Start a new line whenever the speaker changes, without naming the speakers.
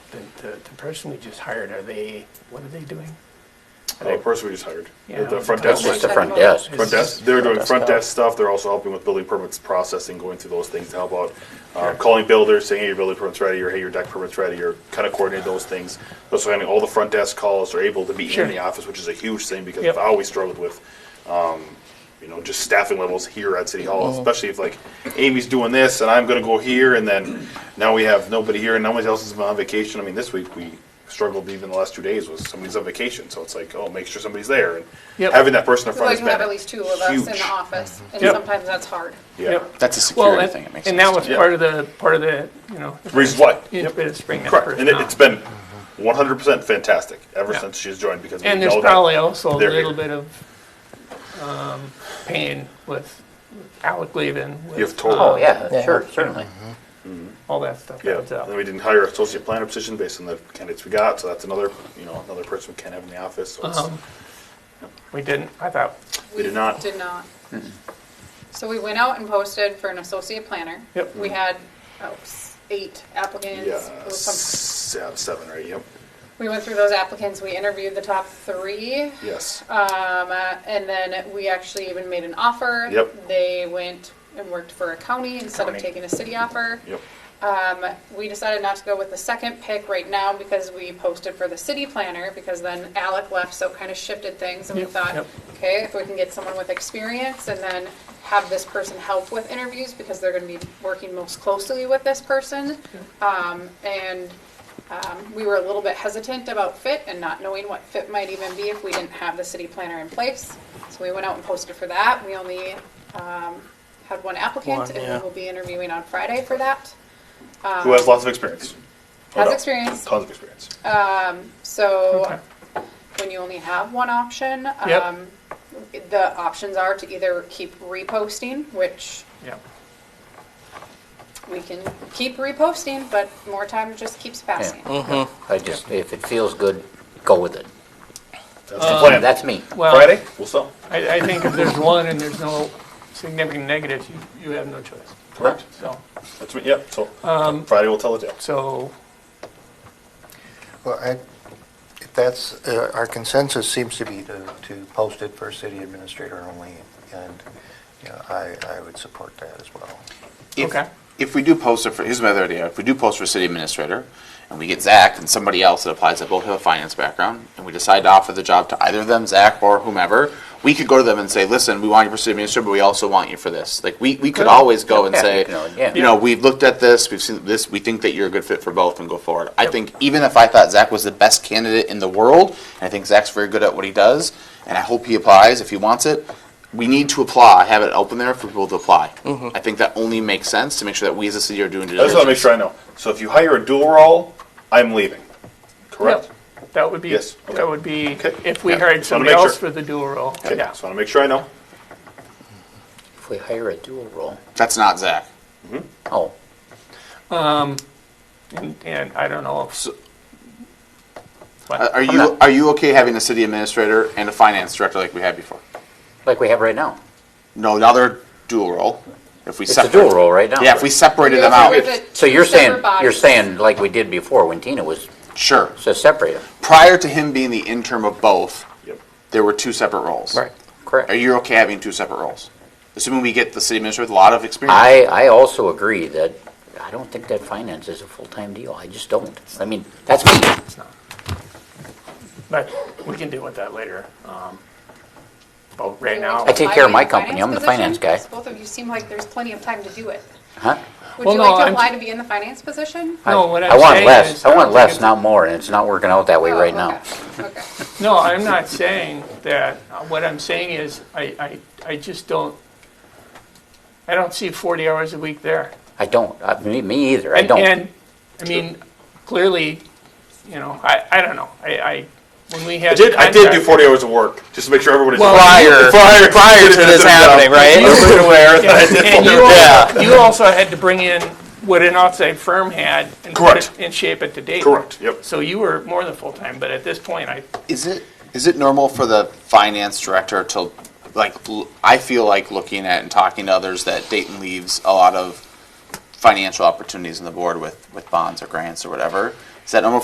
the, the person we just hired, are they, what are they doing? Are
Uh,
they-
The person we just hired,
Yeah.
the the front
That's
desk,
That's
just the
front
front desk.
It's-
desk, they're doing
Front
front
desk.
desk stuff, they're also helping with building permits processing, going through those things to help out. Uh, calling builders, saying, hey, your building permit's ready, or hey, your deck permit's ready, or kind of coordinate those things. Also handling all the front desk calls, are able to be
Sure.
in the office, which is a huge thing, because
Yep.
I always struggled with, um, you know, just staffing levels here at City Hall,
Mm-hmm.
especially if like Amy's doing this and I'm going to go here, and then now we have nobody here and nobody else is on vacation. I mean, this week we struggled even the last two days was somebody's on vacation, so it's like, oh, make sure somebody's there, and
Yep.
having that person in
We
front
like
is
to have at least two of us in
Huge.
the office, and
Yep.
sometimes that's hard.
Yeah,
Yep.
That's a
Well,
security thing. It
and,
makes
and
sense.
that was
Yeah.
part of the, part of the, you know,
reasons why.
it's been a spring.
Correct, and it, it's been 100% fantastic ever
Yeah.
since she's joined because we
And there's
know that-
probably also a
they're
little
here.
bit of, um, pain with Alec leaving. with,
You have total-
uh,
Oh,
Yeah.
yeah, sure, certainly.
All that stuff
Yeah,
comes out.
and we didn't hire an associate planner position based on the candidates we got, so that's another, you know, another person we can't have in the office. So it's,
Um, We didn't, I thought,
We did not.
Did not. So we went out and posted for an associate planner.
Yep.
We had oh, s- eight applicants.
yeah,
It was some-
s- yeah, seven, right? Yep.
We went through those applicants, we interviewed the top three,
Yes.
um, uh, and then we actually even made an offer.
Yep.
They went and worked for a county instead of
County.
taking a city offer.
Yep.
Um, we decided not to go with the second pick right now because we posted for the city planner because then Alec left, so it kind of shifted things. And we
Yep,
thought,
yep.
okay, if we can get someone with experience and then have this person help with interviews because they're going to be working most closely with this person. Um, and um, we were a little bit hesitant about fit and not knowing what fit might even be if we didn't have the city planner in place. So we went out and posted for that. We only um, had one applicant,
One,
and
yeah.
we will be interviewing on Friday for that
Who has lots of experience. No
has
doubt.
experience. Uh,
Tons of experience.
So
Okay.
when you only have one option,
Yep.
um, the options are to either keep reposting, which
yeah,
we can keep reposting, but more time just keeps passing.
Mm-hmm.
I just, if it feels good, go with it.
That's the plan.
That's me.
well.
Friday, we'll sell.
I, I think if there's one and there's no significant negatives, you, you have no choice.
Correct.
So,
That's me. Yep. So
Um,
Friday we'll tell the tale.
so,
Well, I, if that's, uh, our consensus seems to be to, to post it for city administrator only, and, you know, I, I would support that as well.
If,
Okay.
if we do post it for, here's my other idea. If we do post for city administrator, and we get Zach and somebody else that applies that both have a finance background, and we decide to offer the job to either of them, Zach or whomever, we could go to them and say, "Listen, we want you for city administrator, but we also want you for this." Like we, we could
Good.
always go and
Yeah,
say,
you can always- yeah.
you know, we've looked at this, we've seen this, we think that you're a good fit for both, and go forward. I think even if I thought Zach was the best candidate in the world, and I think Zach's very good at what he does, and I hope he applies if he wants it. We need to apply. Have it open there for people to apply. I think that only makes sense to make sure that we as a city are doing. due
I just want to make
diligence.
sure I know. So if you hire a dual role, I'm leaving. Correct.
yeah, that would be,
Yes, okay.
that would be,
Okay.
if we
Yeah,
hired
just wanna
somebody
make
else
sure.
for the dual role,
Okay.
yeah.
Just want to make sure I know.
If we hire a dual role,
That's not Zach.
oh,
And, and I don't know if,
Uh,
but,
Are you are you okay having a city administrator and a finance director like we had before?
like we have right now.
No, now they're dual role. If we
It's a
separate,
dual role right now.
Yeah, if we separated them out,
If it's
So you're saying,
separate bodies,
you're saying like we did before when Tina was,
sure.
so separate them.
Prior to him being the interim of both,
Yep.
there were two separate roles. Are
Correct.
you okay having two separate roles? Assuming we get the city administrator with a lot of experience.
I, I also agree that, I don't think that finance is a full-time deal. I just don't. I mean, that's me.
it's not. But we can deal with that later. Um, But right now,
I take care of my
Apply to the
company. I'm the finance
position?
guy.
Because Both of you seem like there's plenty of time to do it.
Huh?
Would
Well,
you
no,
like to
I'm-
apply to be in the finance position?
I-
No, what
I
I'm
want
saying
less.
is I
I
don't
want
think
less,
it's-
not more, and it's not working out that way
Oh,
right now.
okay, Okay.
no, I'm not saying that, Uh, what I'm saying is, I, I, I just don't, I don't see forty hours a week there.
I don't, I- me- me either, I
And-
don't.
And, I mean, clearly, you know, I, I don't know, I, I, when we had.
I did. I did do
contract-
40 hours of work just to make sure everybody's
Well,
prior prior,
to this happening, right?
Everybody's aware that I did
And
40
you
hours.
also, you also had to bring in what an outside firm had and put
Correct.
it and shape it to date.
Correct, yep.
So you were more than full-time, but at this point, I,
Is it, is it normal for the finance director to, like, l- I feel like looking at and talking to others that Dayton leaves a lot of financial opportunities on the board with, with bonds or grants or whatever. Is that normal